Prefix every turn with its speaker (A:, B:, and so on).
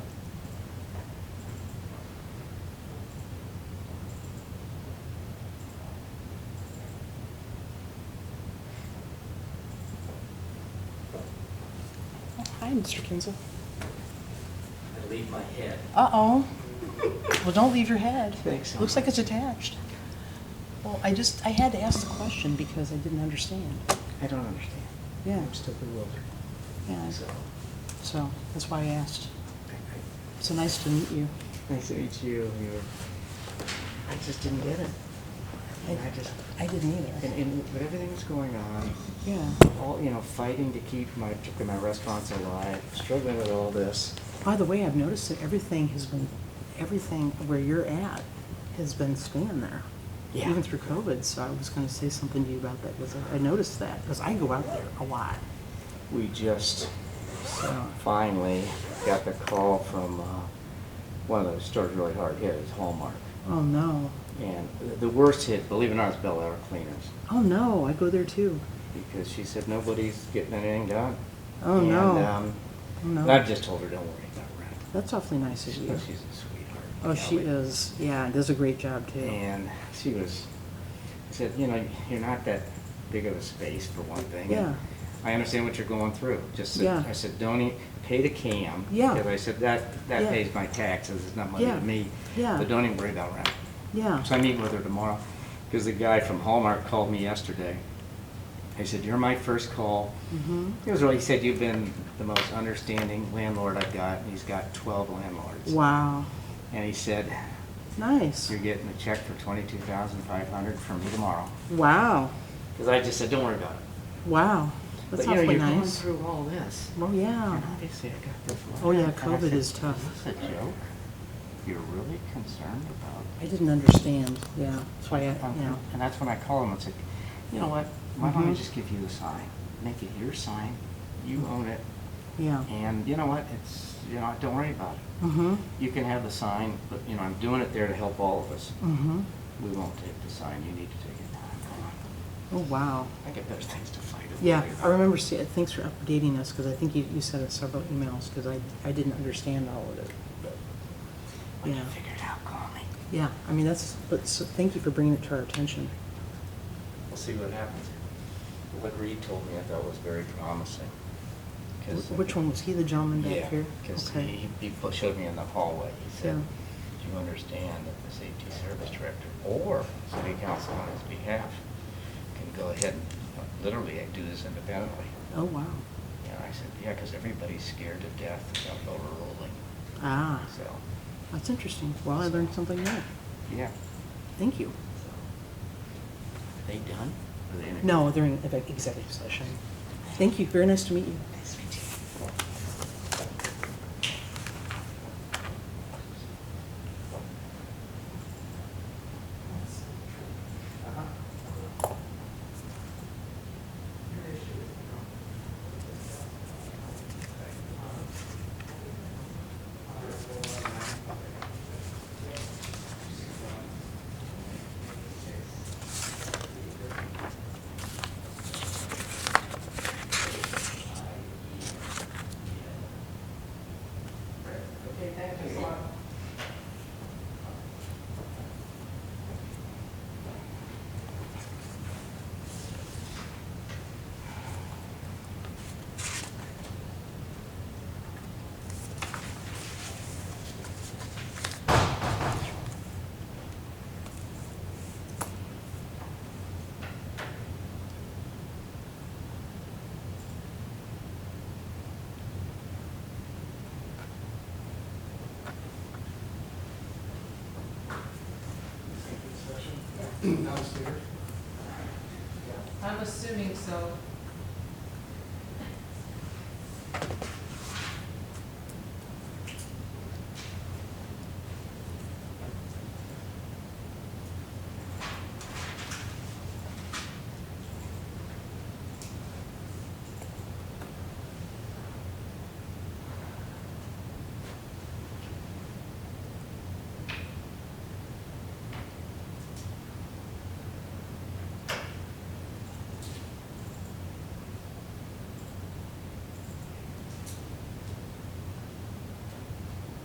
A: Oh,
B: ahead, Mr. Kinzel.
A: I leave my head.
B: Uh-oh. Well, don't leave your head.
A: Thanks.
B: Looks like it's attached. Well, I just, I had to ask the question because I didn't understand.
A: I don't understand.
B: Yeah.
A: I'm still bewildered.
B: Yeah,
A: So,
B: so that's why I asked.
A: I- I-
B: So nice to meet you.
A: nice to meet you. You were, I just didn't get it. And I just,
B: I didn't
A: and,
B: either.
A: and with everything that's going on,
B: Yeah,
A: all, you know, fighting to keep my, particularly my restaurants alive, struggling with all this.
B: by the way, I've noticed that everything has been, everything where you're at has been staying there.
A: Yeah.
B: Even through COVID, so I was gonna say something to you about that, because I noticed that, because I go out there a lot,
A: We just
B: so.
A: finally got the call from, uh, one of those stores really hard hit, it's Hallmark.
B: Oh, no.
A: And the- the worst hit, believe it or not, is Bell Air Cleaners.
B: Oh, no, I go there too.
A: because she said nobody's getting anything done.
B: Oh,
A: and,
B: no.
A: Um,
B: Oh, no.
A: and I've just told her, don't worry about rent.
B: That's awfully nice of
A: She's,
B: you.
A: she's a sweetheart.
B: Oh, she
A: Kelly.
B: is, yeah, does a great job too.
A: And she was, I said, you know, you're not that big of a space for one thing. and
B: Yeah.
A: I understand what you're going through. Just said,
B: Yeah.
A: I said, don't e pay the cam.
B: Yeah.
A: Because I said that that
B: Yeah.
A: pays my taxes. It's not money
B: Yeah.
A: to me.
B: Yeah.
A: But don't even worry about rent.
B: Yeah,
A: So I meet with her tomorrow, because the guy from Hallmark called me yesterday. He said, you're my first call.
B: Mhm.
A: He was really, he said, you've been the most understanding landlord I've got, and he's got twelve landlords.
B: wow,
A: And he said,
B: nice,
A: you're getting a check for twenty-two thousand five hundred from me tomorrow.
B: wow,
A: Because I just said, don't worry about it.
B: wow, that's
A: But, you know,
B: awfully
A: you're going
B: nice.
A: through all this.
B: Well, yeah,
A: And obviously I got this.
B: Oh,
A: letter,
B: yeah,
A: and I
B: COVID
A: said,
B: is tough.
A: "Is this a joke? You're really concerned about
B: I didn't understand, yeah, that's why I, you know,
A: And that's when I called him and said, you know what, why don't I
B: Mhm.
A: just give you a sign? Make it your sign, you own it,
B: yeah,
A: and you know what, it's, you know, don't worry about it.
B: mm-hmm,
A: You can have the sign, but, you know, I'm doing it there to help all of us.
B: mm-hmm,
A: We won't take the sign, you need to take it. I'm going,
B: oh, wow.
A: I got better things to fight over.
B: Yeah, I remember, see, thanks for updating us, because I think you, you sent us several emails, because I, I didn't understand all of it. but-
A: When you
B: yeah.
A: figure it out, call me.
B: Yeah, I mean, that's, but, so, thank you for bringing it to our attention.
A: We'll see what happens. What Reed told me I thought was very promising. 'cause-
B: Wh- Which one, was he the gentleman
A: Yeah,
B: back here?
A: Because
B: Okay.
A: he, he pu- showed me in the hallway, he said,
B: Yeah.
A: do you understand that the safety service director or city council on his behalf can go ahead and uh, literally do this independently?
B: Oh, wow.
A: And I said, yeah, because everybody's scared to death of overruling,
B: Ah,
A: so,
B: that's interesting. Well, I learned something new.
A: yeah.
B: Thank you.
A: so. Are they done? Are they in a-
B: No, they're in ev- executive session. Thank you. Very nice to meet you.
A: Nice to meet you.
C: I'm assuming so.